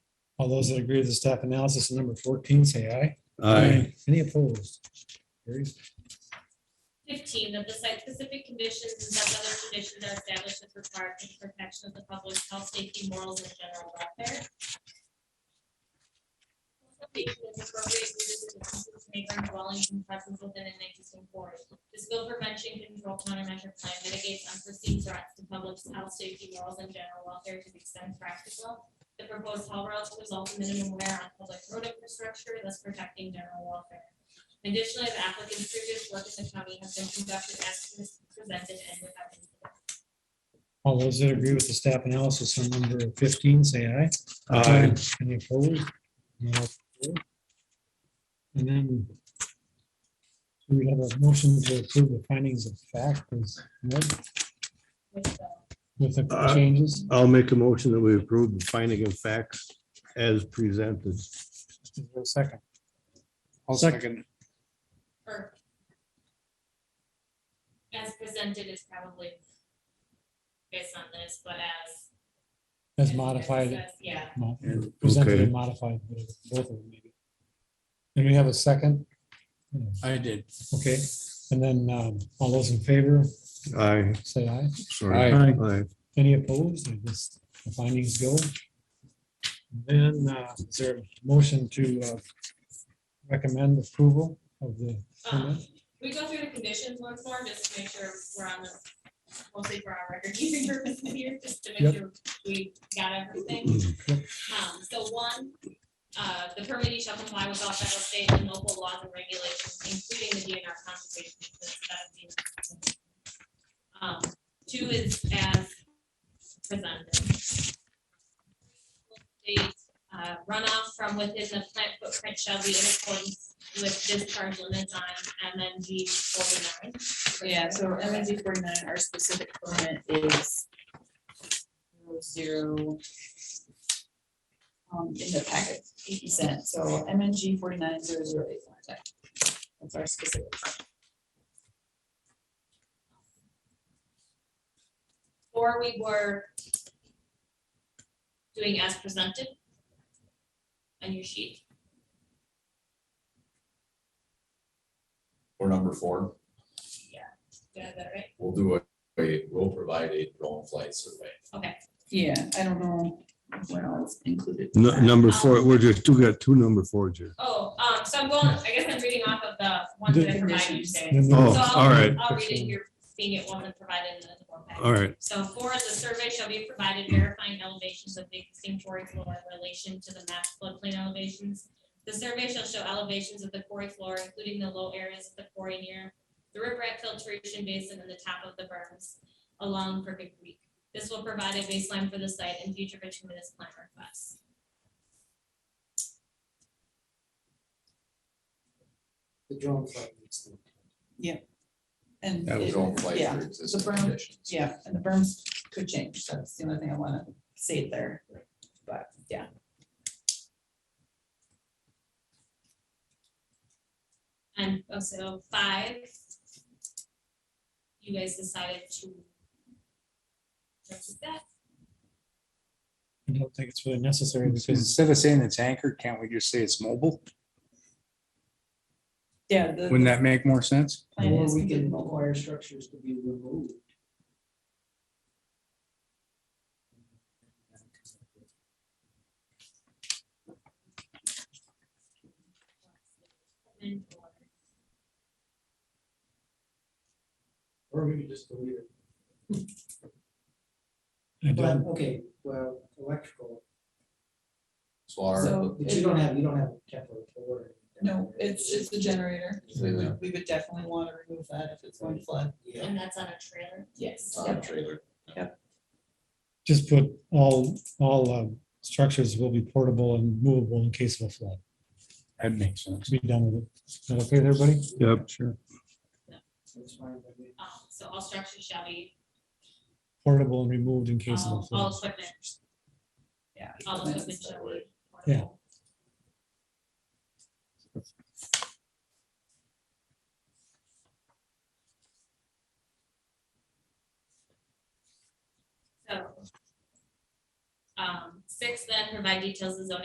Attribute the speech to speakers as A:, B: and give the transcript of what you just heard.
A: All those that agree with the staff analysis on number fourteen, say aye.
B: Aye.
A: Any opposed? Carries.
C: Fifteen, that the site-specific conditions and such other conditions are established as required for the protection of the public's health, safety, morals, and general welfare. Location is appropriate due to the distance neighboring dwellings and presence within an existing forest. This bill prevention control countermeasure plan mitigates unforeseen threats to public's health, safety, morals, and general welfare to the extent practical. The proposed haul routes result in minimum wear on public road infrastructure, thus protecting general welfare. Additionally, the applicant's previous work in the county has been conducted as presented and without. incident.
A: All those that agree with the staff analysis on number fifteen, say aye.
B: Aye.
A: Any opposed? No. And then do we have a motion to approve the findings of fact is what,
C: With the
A: with the
B: Uh,
A: changes?
B: I'll make a motion that we approve the finding of facts as presented.
A: Is there a Second.
D: I'll second.
C: or As presented is probably based on this, but as.
A: As modified.
C: as- Yeah.
A: mo- Presented and modified. both of them maybe. And we have a second?
D: I did.
A: Okay, and then um, all those in favor,
B: Aye,
A: say aye.
B: sorry.
A: Aye.
B: Aye.
A: Any opposed? I guess the findings go. Then uh, is there a motion to uh, recommend approval of the
C: Um,
A: permit?
C: We go through the conditions once more, just to make sure we're on the, mostly for our record keeping purposes here, just to
A: Yep.
C: make sure we got everything. Um, so one, uh, the permittee shall comply with all federal, state, and local laws and regulations, including the DNR conservation. easement, so that would be- Um, two is as presented. The uh, runoff from within the plant footprint shall be in accordance with discharge limits on MNG forty-nine.
E: Yeah, so MNG forty-nine, our specific permit is zero. Um, in the packet, eighty cent, so MNG forty-nine zero zero eight one. That's our specific.
C: Or we were doing as presented on your sheet.
F: Or number four,
C: Did I have that right?
F: we'll do a, a- we'll provide a drone flight survey.
E: Yeah, I don't know what else included. in
B: Nu-
E: that.
B: Number four, we're just, we got two number fours here.
C: Oh, um, so I'm going, I guess I'm reading off of the ones that I provided you today.
A: Then
C: So
A: there-
B: Oh,
C: I'll-
B: all right.
C: I'll read it, you're seeing it one that provided in the form pack.
B: All right,
C: So four, the survey shall be provided verifying elevations of the existing quarry floor in relation to the map floodplain elevations. The survey shall show elevations of the quarry floor, including the low areas of the quarry near the riprap filtration basin and the top of the berms along Crooked Creek. This will provide a baseline for the site and future bituminous plan requests.
G: The drone flight needs to.
E: And,
F: That
E: it-
F: drone flight
E: yeah,
F: for existing
E: berm,
F: conditions.
E: yeah, and the berms could change, that's the only thing I wanna say there, but, yeah.
C: And also five. You guys decided to. Just that,
A: I don't think it's really necessary because
D: Instead of saying it's anchored, can't we just say it's mobile?
E: Yeah, the.
D: Wouldn't that make more sense?
E: Plan
G: Or
E: is
G: we
E: completely
G: can
E: mobile.
G: require structures to be removed.
C: and or
G: Or we can just delete it.
A: I
G: But,
A: don't,
G: okay, well, electrical,
F: So our,
E: So-
G: but you don't have, you don't have a temporary floor.
E: No, it's, it's the generator.
F: Yeah.
E: We would definitely want to remove that if it's going to flood. Um,
G: Yeah.
C: and that's on a trailer.
E: Yes.
F: our trailer,
A: just put all, all um, structures will be portable and movable in case of a flood.
D: That makes sense.
A: Be done with it. Is that okay with everybody?
B: yep, sure.
G: That's fine, but we-
C: Um, so all structures shall be,
A: Portable and removed in case of a
C: all, all
A: flood.
C: equipment,
E: Yeah. Um,
C: all equipment shall be.
A: Yeah.
C: So. Um, six then provide details of zoning